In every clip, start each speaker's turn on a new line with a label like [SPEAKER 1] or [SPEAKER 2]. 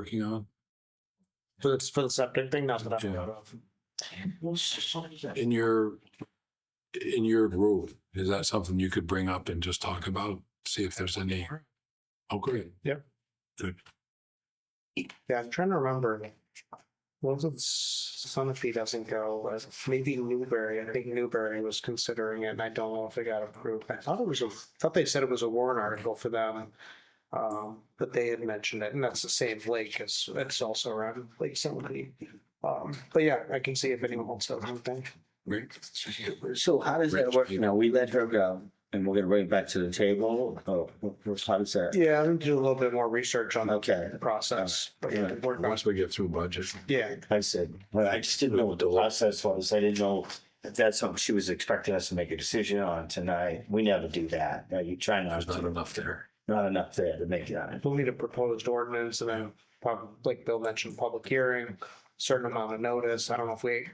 [SPEAKER 1] working on?
[SPEAKER 2] For the, for the septic thing, not that I'm
[SPEAKER 1] Yeah.
[SPEAKER 2] aware of.
[SPEAKER 1] In your, in your rule, is that something you could bring up and just talk about? See if there's any, oh, great.
[SPEAKER 2] Yeah, I'm trying to remember. What was Sunapee doesn't go, maybe Newberry, I think Newberry was considering it and I don't know if it got approved. I thought it was, a I thought they said it was a warrant article for them. Um, but they had mentioned it and that's the same lake as, it's also around Lake Sunapee. Um, but yeah, I can see if anyone else has anything.
[SPEAKER 1] Great.
[SPEAKER 3] So how does that
[SPEAKER 1] Rich
[SPEAKER 3] work
[SPEAKER 1] people.
[SPEAKER 3] now? We let her go and we're gonna bring it back to the table? Oh, how does that?
[SPEAKER 2] Yeah, I'm gonna do a little bit more research on the
[SPEAKER 3] Okay,
[SPEAKER 2] process. but
[SPEAKER 3] Yeah.
[SPEAKER 2] we're not-
[SPEAKER 1] Once we get through budget.
[SPEAKER 2] Yeah,
[SPEAKER 3] I said, well, I just didn't know what the process was. I didn't know if that's something she was expecting us to make a decision on tonight. We never do that. Are you trying not
[SPEAKER 1] There's not
[SPEAKER 3] to?
[SPEAKER 1] enough there.
[SPEAKER 3] Not enough there to make it on it.
[SPEAKER 2] we'll need a proposed ordinance and then, pub- like Bill mentioned, public hearing, certain amount of notice. I don't know if we,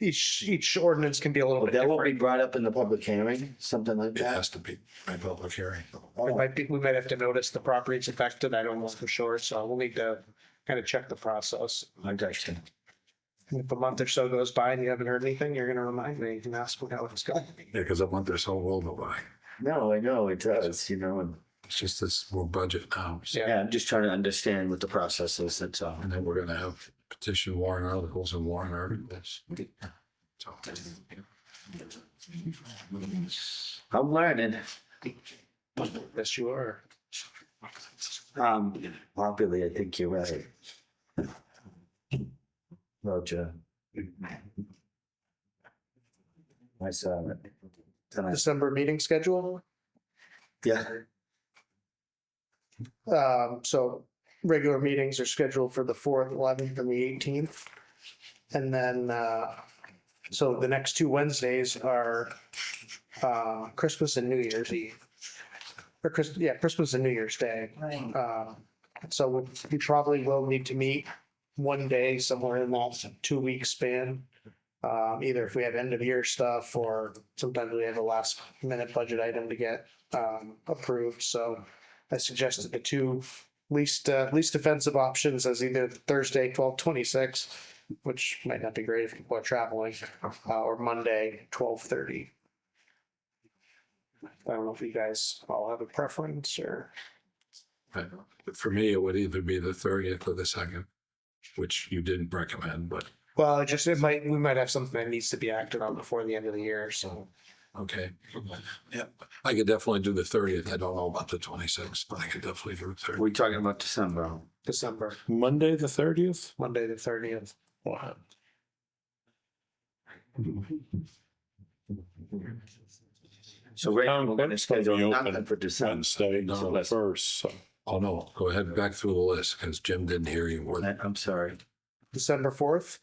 [SPEAKER 2] each, each ordinance can be a little
[SPEAKER 3] Well,
[SPEAKER 2] bit
[SPEAKER 3] that will be
[SPEAKER 2] different.
[SPEAKER 3] brought up in the public hearing, something like
[SPEAKER 1] It
[SPEAKER 3] that.
[SPEAKER 1] has to be by public hearing.
[SPEAKER 2] We
[SPEAKER 3] Oh,
[SPEAKER 2] might, be- we might have to notice the properties affected. I don't know for sure, so we'll need to kind of check the process.
[SPEAKER 3] I got you.
[SPEAKER 2] And If a month or so goes by and you haven't heard anything, you're gonna remind me and ask me how it's going.
[SPEAKER 1] Yeah, because a month or so will go by.
[SPEAKER 3] No, I know it does, you know, and
[SPEAKER 1] It's just this, we're budget now. so-
[SPEAKER 2] Yeah.
[SPEAKER 3] yeah, I'm just trying to understand what the process is. That's all.
[SPEAKER 1] And then we're gonna have petition warrant articles and warrant articles. So,
[SPEAKER 3] I'm learning.
[SPEAKER 2] Yes, you are.
[SPEAKER 3] Um, probably, I think you're right. Roger. I saw it. Then I-
[SPEAKER 2] December meeting schedule?
[SPEAKER 3] Yeah,
[SPEAKER 2] Um, so regular meetings are scheduled for the fourth, eleventh and the eighteenth. And then, uh, so the next two Wednesdays are, uh, Christmas and New Year's Eve. Or Chris, yeah, Christmas and New Year's Day. Um, so we- we probably will need to meet one day somewhere in that two week span. Um, either if we have end of year stuff or sometimes we have a last minute budget item to get, um, approved. So I suggested the two least, uh, least offensive options as either Thursday, twelve twenty-six, which might not be great if people are traveling, uh, or Monday, twelve thirty. I don't know if you guys all have a preference or.
[SPEAKER 1] but For me, it would either be the thirtieth or the second, which you didn't recommend, but
[SPEAKER 2] Well, it just, it might, we might have something that needs to be acted on before the end of the year, so.
[SPEAKER 1] okay. Yeah, I could definitely do the thirtieth. I don't know about the twenty-sixth, but I could definitely do the thirtieth.
[SPEAKER 3] we talking about December.
[SPEAKER 2] December,
[SPEAKER 1] Monday, the thirtieth?
[SPEAKER 2] Monday, the thirtieth.
[SPEAKER 1] Wow.
[SPEAKER 3] So right now,
[SPEAKER 4] Town
[SPEAKER 3] we're gonna
[SPEAKER 4] clerk's gonna be
[SPEAKER 3] schedule
[SPEAKER 4] open
[SPEAKER 3] nothing for December.
[SPEAKER 4] Wednesday,
[SPEAKER 1] No.
[SPEAKER 4] the first, so
[SPEAKER 1] Oh, no, go ahead, back through the list, because Jim didn't hear you. We're-
[SPEAKER 3] I- I'm sorry.
[SPEAKER 2] December fourth,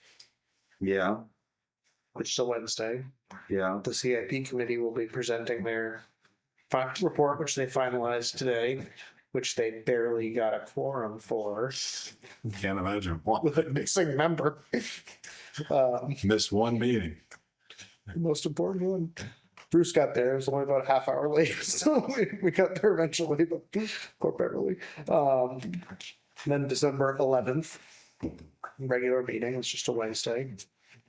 [SPEAKER 3] Yeah,
[SPEAKER 2] which is a Wednesday,
[SPEAKER 3] yeah.
[SPEAKER 2] the CIP committee will be presenting their fi- report, which they finalized today, which they barely got a quorum for
[SPEAKER 1] Can't imagine. why.
[SPEAKER 2] with a missing member. Um,
[SPEAKER 1] Missed one meeting.
[SPEAKER 2] most important one. Bruce got there. It was only about a half hour late, so we, we got there eventually. But poor Beverly. Um, then December eleventh, regular meeting. It's just a Wednesday.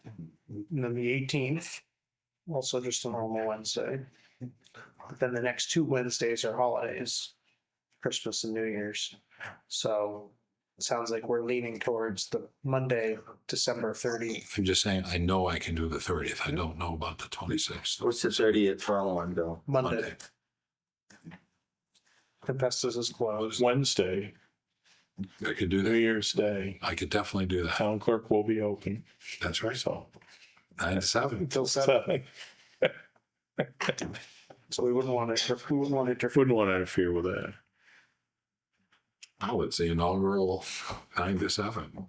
[SPEAKER 2] And then the eighteenth, also just a normal Wednesday. But then the next two Wednesdays are holidays, Christmas and New Year's. So it sounds like we're leaning towards the Monday, December thirtieth.
[SPEAKER 1] I'm just saying, I know I can do the thirtieth. I don't know about the twenty-sixth.
[SPEAKER 3] What's the thirtieth following, Bill?
[SPEAKER 2] Monday. The Festus is closed.
[SPEAKER 4] Wednesday,
[SPEAKER 1] I could do
[SPEAKER 4] New
[SPEAKER 1] that.
[SPEAKER 4] Year's Day,
[SPEAKER 1] I could definitely do that.
[SPEAKER 4] town clerk will be open,
[SPEAKER 1] That's right.
[SPEAKER 4] so.
[SPEAKER 1] Nine to seven.
[SPEAKER 2] Until seven,
[SPEAKER 4] Wouldn't
[SPEAKER 2] so we wouldn't want to, we wouldn't want to interfere.
[SPEAKER 4] want to interfere with that.
[SPEAKER 1] Oh, it's the inaugural nine to seven.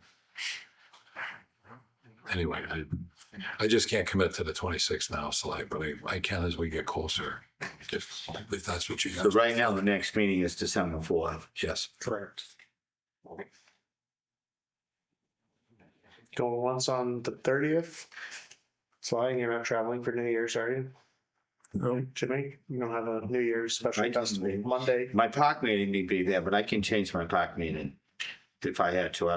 [SPEAKER 1] Anyway, I, I just can't commit to the twenty-sixth now, Sly, but I, I can as we get closer. If, if that's what you
[SPEAKER 3] So
[SPEAKER 1] guys,
[SPEAKER 3] right now, the next meeting is December fourth.
[SPEAKER 1] yes.
[SPEAKER 2] Correct. Going once on the thirtieth. Flying, you're not traveling for New Year's, are you?
[SPEAKER 4] No.
[SPEAKER 2] Jimmy, you don't have a New Year's special
[SPEAKER 3] I don't
[SPEAKER 2] festival
[SPEAKER 3] think-
[SPEAKER 2] Monday?
[SPEAKER 3] My park meeting may be there, but I can change my park meeting if I had to. I